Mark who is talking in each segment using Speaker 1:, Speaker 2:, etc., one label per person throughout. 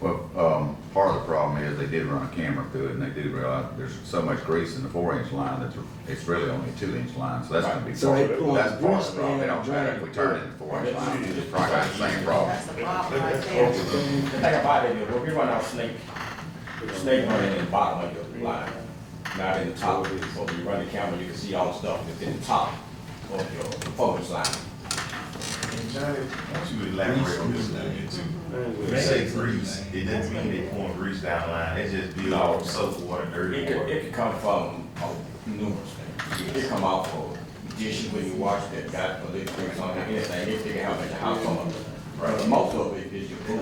Speaker 1: Well, um, part of the problem is they did run a camera through it and they do realize there's so much grease in the four inch line that it's really only a two inch line, so that's gonna be
Speaker 2: So
Speaker 1: part of
Speaker 2: they
Speaker 1: it.
Speaker 2: pull
Speaker 1: That's
Speaker 2: the
Speaker 1: part of
Speaker 2: grease
Speaker 1: the problem. It
Speaker 2: man
Speaker 1: don't matter if we turn it in four inch line, it's probably got the same problem.
Speaker 3: That's the problem right there.
Speaker 4: The thing about it is, when we run our snake, the snake running in the bottom of your line, not in the top. So when you run the camera, you can see all the stuff that's in the top of your focus line.
Speaker 5: Why don't you elaborate on this a little bit too? When you say grease, it doesn't mean they pouring grease down line, it just be all soap, water, dirty
Speaker 4: It could, it
Speaker 5: water.
Speaker 4: could come from oh, numerous things. It could come off of dishes when you wash that, got a little grease on it, anything, it could happen at the house on it. But most of it is your food.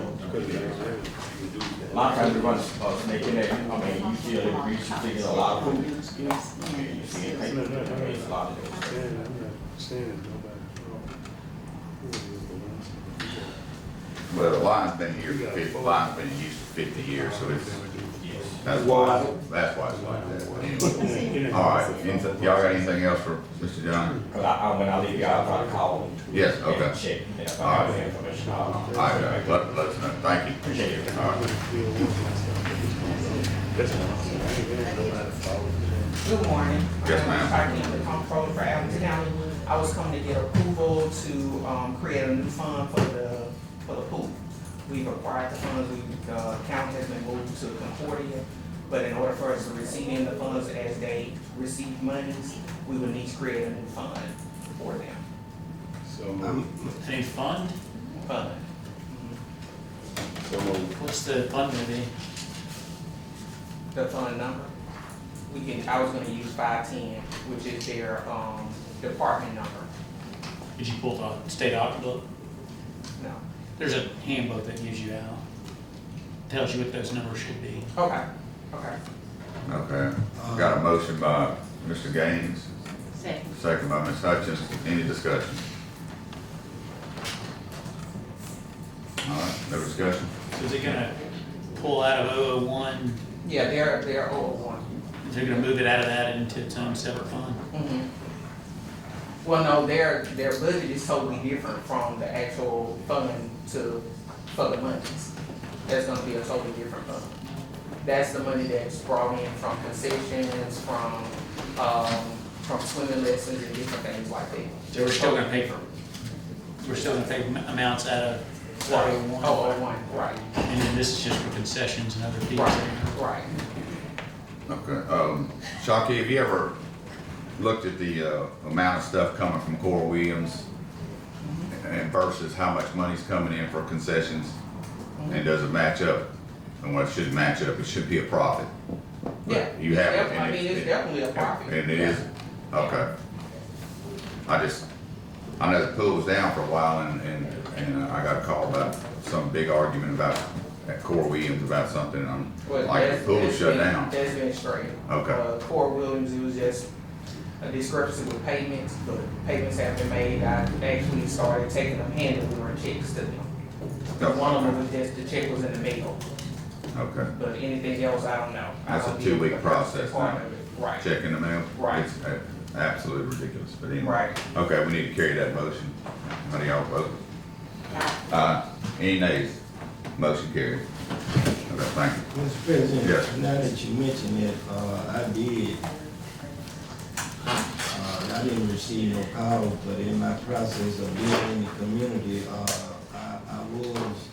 Speaker 4: A lot of times we run a snake in there, I mean, you see a little grease, you see a lot of food.
Speaker 3: Yeah.
Speaker 4: You see it, I mean, it's a lot of those.
Speaker 1: But the line's been here for fifty, the line's been used for fifty years, so it's, that's why,
Speaker 2: Why?
Speaker 1: that's why it's like that. But anyway. All right, anything- y'all got anything else for Mr. John?
Speaker 4: Cause I, I, when I leave, y'all try to call them.
Speaker 1: Yes,
Speaker 4: and
Speaker 1: okay.
Speaker 4: Check, and if I have any information, I'll.
Speaker 1: All right, uh, let, let us know, thank you.
Speaker 4: Appreciate it.
Speaker 1: All right.
Speaker 6: Good morning. Um,
Speaker 1: Yes, ma'am.
Speaker 6: I'm Franklin, comptroller for Allen County. I was coming to get approval to, um, create a new fund for the, for the pool. We've acquired the funds, we, the county has been moved to Concordia, but in order for us to receive in the funds as they receive monies, we would need to create a new fund for them,
Speaker 7: A fund?
Speaker 6: fund.
Speaker 7: What's the fund gonna be?
Speaker 6: The fund number, we can, I was gonna use five-ten, which is their, um, department number,
Speaker 7: Did you pull the state audit book?
Speaker 6: no.
Speaker 7: There's a handbook that gives you out, tells you what those numbers should be.
Speaker 6: Okay, okay.
Speaker 1: Okay, got a motion by Mr. Gaines,
Speaker 3: Second.
Speaker 1: second by Ms. Hutchins, any discussion? All right, no discussion?
Speaker 7: So is it gonna pull out of 001,
Speaker 6: Yeah, they're, they're old one.
Speaker 7: is it gonna move it out of that into its own separate fund?
Speaker 6: Mhm. Well, no, their, their budget is totally different from the actual fund to, for the monies. That's gonna be a totally different fund. That's the money that's brought in from concessions, from, um, from swimming lessons and different things like that.
Speaker 7: So we're still gonna pay for, we're still gonna pay am- amounts out of
Speaker 6: Oh,
Speaker 7: 001?
Speaker 6: oh, one, right,
Speaker 7: And then this is just for concessions and other fees.
Speaker 6: right, right.
Speaker 1: Okay, um, Shockey, have you ever looked at the, uh, amount of stuff coming from Coral Williams? And versus how much money's coming in for concessions? And does it match up? And what should match up, it should be a profit. But
Speaker 6: Yeah.
Speaker 1: You have it.
Speaker 6: Def-
Speaker 1: and
Speaker 6: I
Speaker 1: it-
Speaker 6: mean, it's
Speaker 1: it-
Speaker 6: definitely a profit.
Speaker 1: And it is, okay. I just, I know the pool was down for a while and, and, and uh, I got a call about some big argument about, at Coral Williams about something, and
Speaker 6: Well,
Speaker 1: I'm like,
Speaker 6: that's-
Speaker 1: the pool
Speaker 6: that's
Speaker 1: shut
Speaker 6: been-
Speaker 1: down.
Speaker 6: That's been straight.
Speaker 1: Okay.
Speaker 6: Uh, Core Williams, it was just a discrepancy with payments, but payments have been made. I actually started taking them hand delivering checks to them.
Speaker 1: Okay.
Speaker 6: One of them was just, the check was in the mail,
Speaker 1: Okay.
Speaker 6: but anything else, I don't know. I
Speaker 1: That's a
Speaker 6: don't deal with
Speaker 1: two-week
Speaker 6: the first
Speaker 1: process
Speaker 6: part
Speaker 1: now.
Speaker 6: of it. Right,
Speaker 1: Check in the mail?
Speaker 6: Right.
Speaker 1: It's a- absolutely ridiculous, but anyway.
Speaker 6: right.
Speaker 1: Okay, we need to carry that motion. How do y'all vote? Uh, any nays? Motion carried. Okay, thank you.
Speaker 2: Mr.
Speaker 1: Yes.
Speaker 2: President, now that you mention it, uh, I did, uh, I didn't receive no calls, but in my process of being in the community, uh, I, I was,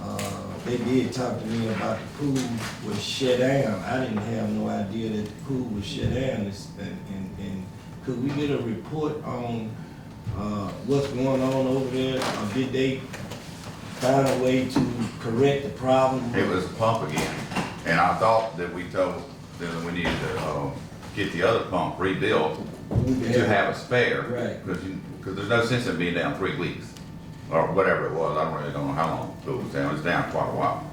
Speaker 2: uh, they did talk to me about the pool was shut down. I didn't have no idea that the pool was shut down, It's- and, and, and could we get a report on, uh, what's going on over there? Or did they find a way to correct the problem?
Speaker 1: It was a pump again, and I thought that we told, that we needed to, uh, get the other pump rebuilt to have a spare.
Speaker 2: Right.
Speaker 1: Cause you, cause there's no sense in being down three weeks, or whatever it was, I don't really don't know how long it was down, it was down quite a while.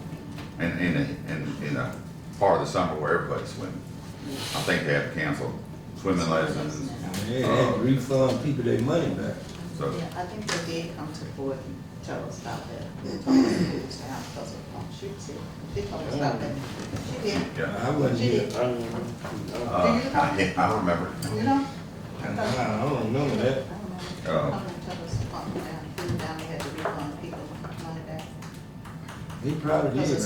Speaker 1: And, in the in, in a part of the summer where everybody's swimming, I think they had to cancel swimming lessons,
Speaker 2: Yeah, they had to refund people their money back.
Speaker 1: so.
Speaker 3: Yeah, I think they did come to the board and tell us about that. They told us it was down because of, um, she said, she told us about that. She did,
Speaker 1: Yeah.
Speaker 2: I wasn't
Speaker 3: she
Speaker 2: here,
Speaker 3: did,
Speaker 1: Uh, I, I remember,
Speaker 3: you know?
Speaker 2: I don't remember
Speaker 3: I
Speaker 2: that.
Speaker 3: don't know.
Speaker 1: Oh.
Speaker 3: I'm gonna tell uh, us, um, down, down, they had to refund people money back.
Speaker 2: He probably did,